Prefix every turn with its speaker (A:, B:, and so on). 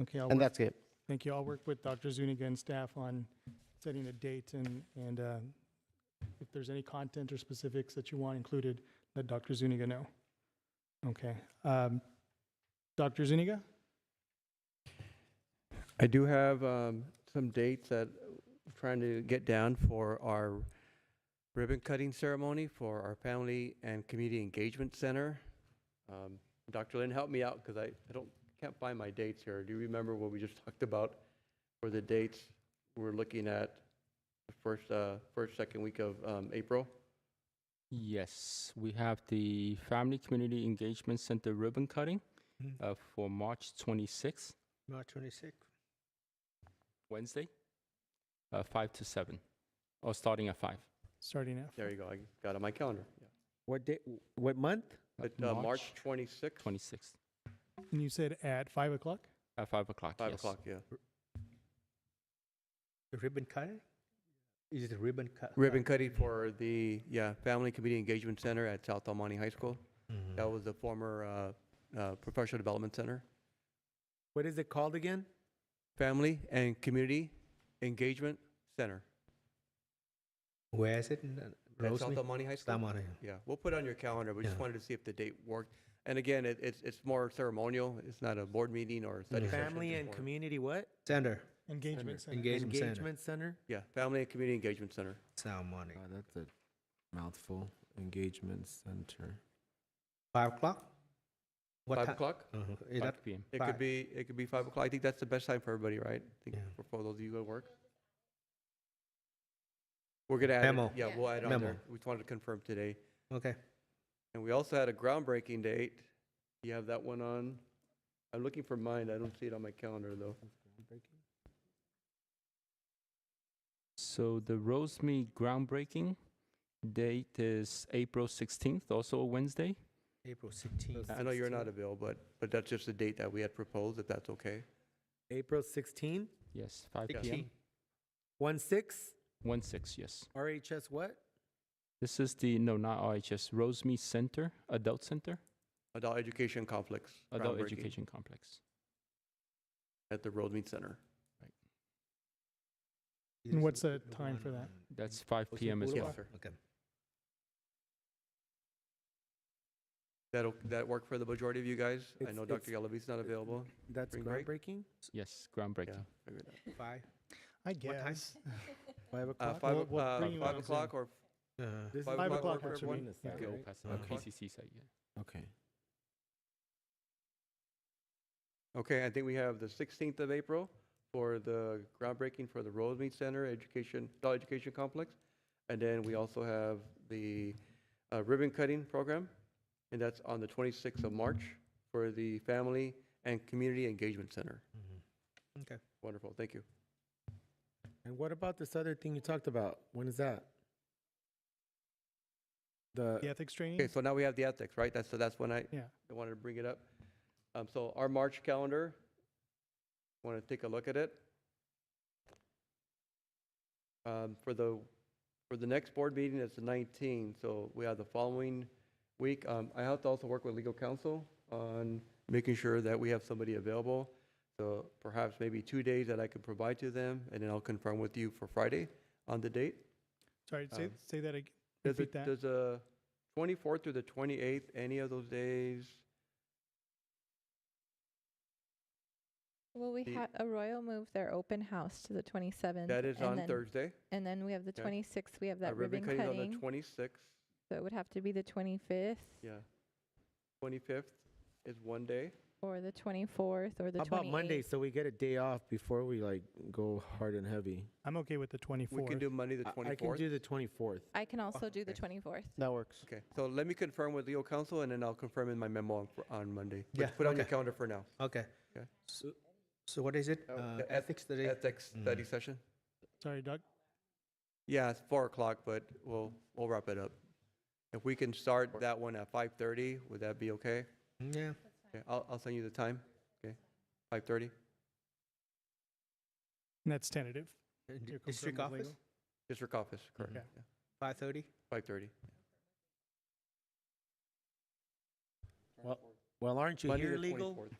A: Okay, I'll,
B: And
A: work-
B: that's it.
A: thank you. I'll work with Dr. Zuniga and staff on setting a date and, and uh, if there's any content or specifics that you want included, let Dr. Zuniga know. Okay. um, Dr. Zuniga?
C: I do have um, some dates that I'm trying to get down for our ribbon cutting ceremony for our Family and Community Engagement Center. Um, Dr. Lynn, help me out because I, I don't, can't find my dates here. Do you remember what we just talked about for the dates? We're looking at the first, uh, first, second week of um, April.
D: Yes, we have the Family Community Engagement Center ribbon cutting
C: Mm-hmm.
B: Mhm.
D: uh, for March 26th,
B: March 26th.
D: Wednesday, uh, 5 to 7, or starting at 5.
A: Starting at
C: There you go. I got it on my calendar. Yeah.
B: What day, what month?
D: Uh,
C: But, uh, March 26th,
D: 26th
A: And you said at five o'clock?
D: at 5 o'clock.
C: 5
D: yes.
C: o'clock, yeah.
E: The ribbon cutting? Is it ribbon cut?
C: Ribbon cutting for the, yeah, Family Community Engagement Center at South Almani High School.
E: mm-hmm.
C: That was the former uh, uh, Professional Development Center.
B: What is it called again?
C: Family and Community Engagement Center
E: Where is it?
C: at South
E: Rosalie?
C: Almani High School.
E: Damari.
C: Yeah, we'll put it on your calendar, we just
E: Yeah.
C: wanted to see if the date worked. And again, it- it's, it's more ceremonial, it's not a board meeting or a study
E: Mhm.
C: session.
B: Family
C: just
B: and
C: more-
B: community what?
E: Center,
A: Engagement center.
E: engagement center.
B: Engagement Center?
C: Yeah, Family and Community Engagement Center.
E: Ceremony.
F: God, that's a mouthful. Engagement center.
E: Five o'clock? What
C: 5
E: ti-
C: o'clock?
E: Uh-huh.
D: 5
E: Is that-
D: p.m.
C: It could
E: Five.
C: be, it could be 5 o'clock, I think that's the best time for everybody, right? I think
E: Yeah.
C: For for those of you at work. We're gonna add,
E: Memo.
C: it- yeah, we'll add it on
E: Memo.
C: there, we just wanted to confirm today.
E: Okay.
C: And we also had a groundbreaking date. You have that one on? I'm looking for mine. I don't see it on my calendar, though.
D: So the Rosemead groundbreaking date is April 16th, also a Wednesday.
E: April sixteenth.
C: I know you're not available, but, but that's just the date that we had proposed, if that's okay.
B: April 16?
D: Yes, 5
C: Yeah.
D: p.m.
B: 1 6?
D: 1 6, yes.
B: RHS what?
D: This is the, no, not RHS, Rosemead Center, Adult Center,
C: Adult education conflicts.
D: Adult
C: groundbreaking
D: Education Complex.
C: At the Road Meet Center.
A: And what's the time for that?
C: Mm-hmm.
D: That's 5
E: Rosemead
D: p.m. as
C: Yes,
D: well.
C: sir.
E: Okay.
C: That'll, that work for the majority of you guys? I
B: It's-
C: know
B: it's-
C: Dr. Galavis not available.
B: That's
C: Spring break?
B: groundbreaking?
D: Yes,
C: Yeah,
D: groundbreaking.
C: figured that.
E: Five.
A: I
E: What time?
A: guess.
B: 5
C: Uh,
B: o'clock?
C: five,
A: We'll-
C: o-
A: we'll
C: uh,
A: bring you
C: five
A: on
C: o'clock or
E: Uh,
B: This is
C: five
A: Five
C: o'clock
A: o'clock
C: work for
A: works for me.
C: everyone?
A: Yeah.
C: Okay.
F: Okay.
D: Uh,
E: Okay.
D: PCC site, yeah.
F: Okay.
C: Okay, I think we have the 16th of April for the groundbreaking for the Rosemead Center Education, Adult Education Complex. And then we also have the uh, ribbon cutting program, and that's on the 26th of March for the Family and Community Engagement Center.
E: Mm-hmm. Okay.
C: Wonderful, thank you.
B: And what about this other thing you talked about? When is that? The
A: The ethics training?
C: Okay, so now we have the ethics, right? That's, so that's when I
A: Yeah.
C: I wanted to bring it up. Um, So our March calendar, want to take a look at it? Um, For the, for the next board meeting, it's the 19th, so we have the following week. Um, I have to also work with legal counsel on making sure that we have somebody available. So perhaps maybe two days that I can provide to them, and then I'll confirm with you for Friday on the date.
A: Sorry, say,
C: um,
A: say that again.
C: Does
A: Repeat that.
C: it- Does a 24th through the 28th, any of those days?
G: Well, we
C: The-
G: had a royal move their open house to the 27th.
C: That is
G: and
C: on
G: then-
C: Thursday.
G: And then we have the
C: Okay.
G: 26th. We have
C: Uh,
G: that ribbon
C: cutting's on
G: cutting.
C: the 26th.
G: so it would have to be the 25th
C: Yeah. 25th is one day.
G: or the 24th or the
B: how
G: 28th.
B: about Monday? So we get a day off before we like go hard and heavy.
A: I'm okay with the
C: We can
A: twenty-fourth.
C: do Monday, the
B: I- I can
C: 24th.
B: do the 24th.
G: I can also do the
C: Oh, okay.
G: 24th.
B: That works.
C: Okay, so let me confirm with legal counsel and then I'll confirm in my memo on fr- on Monday. But
E: Yeah,
C: Put on your
E: okay.
C: calendar for now.
E: Okay.
C: Okay.
E: So, so what is it?
C: Oh,
E: Uh,
C: the eth-
E: ethics today?
C: Ethics study session.
A: Sorry, Doc.
C: Yeah, it's four o'clock, but we'll, we'll wrap it up. If we can start that one at 5:30, would that be okay?
E: Mm, Yeah.
C: Okay, I'll, I'll send you the time. Okay, 5:30,
A: And that's tentative.
E: Uh, d-
A: You're confirmed
E: District
A: with
E: office,
A: legal?
C: district office, correct?
A: Okay.
C: Yeah,
E: five thirty?
C: 5:30.
B: Well, aren't you
C: Monday
B: here
C: the
B: legal?
C: 24th.